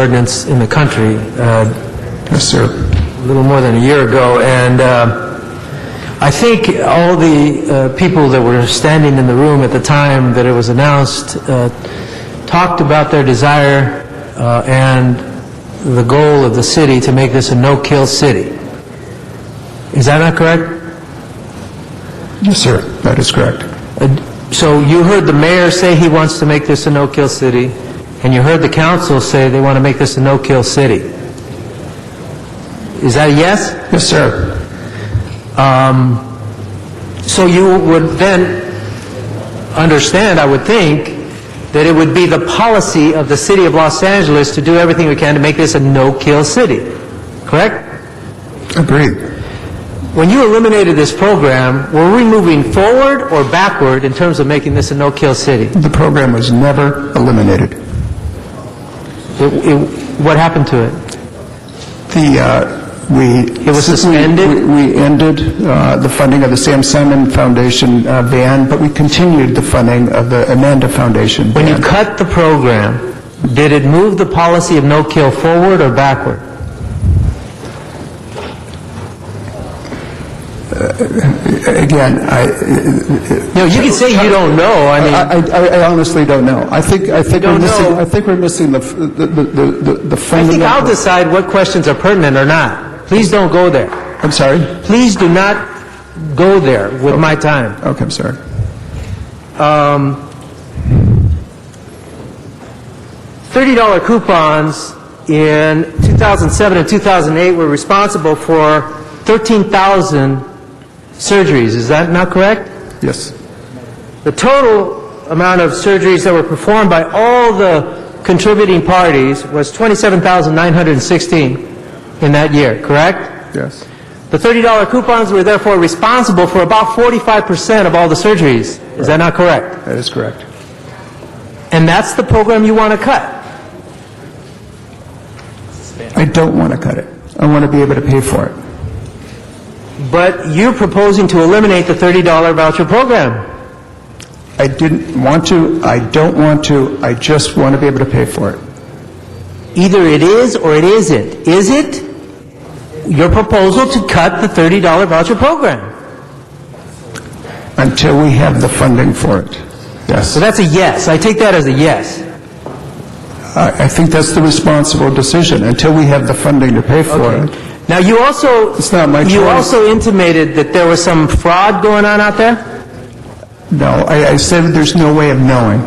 ordinance in the country uh, Yes, sir. a little more than a year ago, and uh, I think all the uh, people that were standing in the room at the time that it was announced uh, talked about their desire uh, and the goal of the city to make this a no-kill city. Is that not correct? Yes, sir. That is correct. Uh, So you heard the mayor say he wants to make this a no-kill city, and you heard the council say they want to make this a no-kill city. Is that a yes? Yes, sir. So you would then understand, I would think, that it would be the policy of the city of Los Angeles to do everything we can to make this a no-kill city, correct? Agreed. When you eliminated this program, were we moving forward or backward in terms of making this a no-kill city? The program was never eliminated. It- it- What happened to it? The, uh, we... It was we- suspended? we- We ended uh, the funding of the Sam Simon Foundation uh, ban, but we continued the funding of the Amanda Foundation When you ban. cut the program, did it move the policy of no-kill forward or backward? Again, I... No, you can say you don't know, I mean... I, I I honestly don't know. I think, I think we're don't missing, know. I think we're missing the, f- the, the- the, the I think fundamental... I'll decide what questions are pertinent or not. Please don't go there. I'm sorry? Please do not go there with my time. Okay, I'm sorry. $30 coupons in 2007 and 2008 were responsible for 13,000 surgeries, is that not correct? Yes. The total amount of surgeries that were performed by all the contributing parties was 27,916 in that year, correct? Yes. The $30 coupons were therefore responsible for about 45% of all the surgeries. Is that not correct? That is correct. And that's the program you want to cut. I don't want to cut it. I want to be able to pay for it. But you're proposing to eliminate the $30 voucher program. I didn't want to, I don't want to, I just want to be able to pay for it. Either it is or it isn't. Is it your proposal to cut the $30 voucher program? Until we have the funding for it. Yes. So that's a yes. I take that as a yes. I, I think that's the responsible decision, until we have the funding to pay for it. Now, you also... It's not my You choice. also intimated that there was some fraud going on out there? No, I, I said that there's no way of knowing.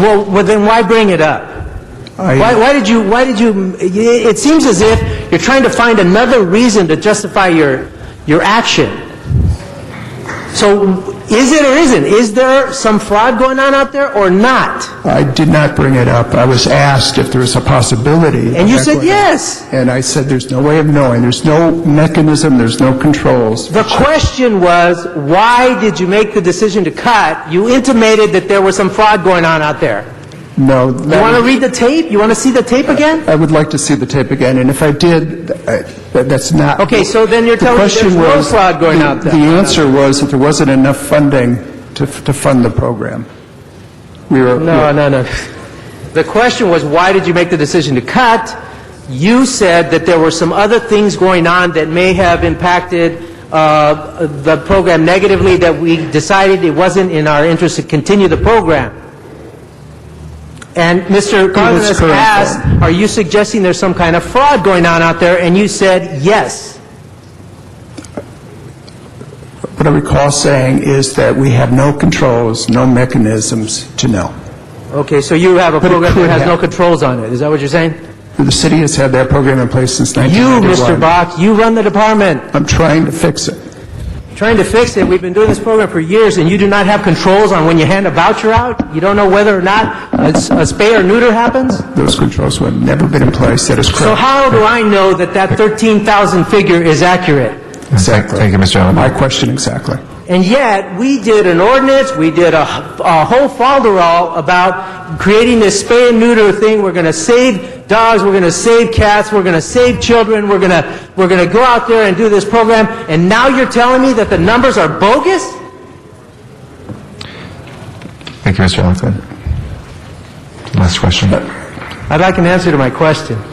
Well, well, then why bring it up? I- Why, why did you, why did you, it seems as if you're trying to find another reason to justify your, your action. So, is it or isn't? Is there some fraud going on out there or not? I did not bring it up. I was asked if there was a possibility. of And you that said going on. yes. And I said, there's no way of knowing. There's no mechanism, there's no controls. The question was, why did you make the decision to cut? You intimated that there was some fraud going on out there. No. You want to read the tape? You want to see the tape again? I would like to see the tape again, and if I did, th- I- th- that's not... Okay, so then you're The telling me question there's no was- fraud going the- out there. The answer was that there wasn't enough funding to f- to fund the program. We were... No, no, no. The question was, why did you make the decision to cut? You said that there were some other things going on that may have impacted uh, the program negatively, that we decided it wasn't in our interest to continue the program. And Mr. Cardenas correct. asked, are you suggesting there's some kind of fraud going on out there? And you said, yes. What I recall saying is that we have no controls, no mechanisms to know. Okay, so you have a But it program that could has no happen. controls on it, is that what you're saying? The city has had that program in place since You, 1991. Mr. Bach, you run the department. I'm trying to fix it. trying to fix it. We've been doing this program for years, and you do not have controls on when you hand a voucher out? You don't know whether or not a s- a spay or neuter happens? Those controls have never been in place, that is correct. So how do I know that that 13,000 figure is accurate? Exactly. Thank you, Mr. Allen. My question, exactly. And yet, we did an ordinance, we did a, a whole falderall about creating this spay and neuter thing. We're going to save dogs, we're going to save cats, we're going to save children, we're going to, we're going to go out there and do this program, and now you're telling me that the numbers are bogus? Thank you, Mr. Allen. Last question. I'd like an answer to my question.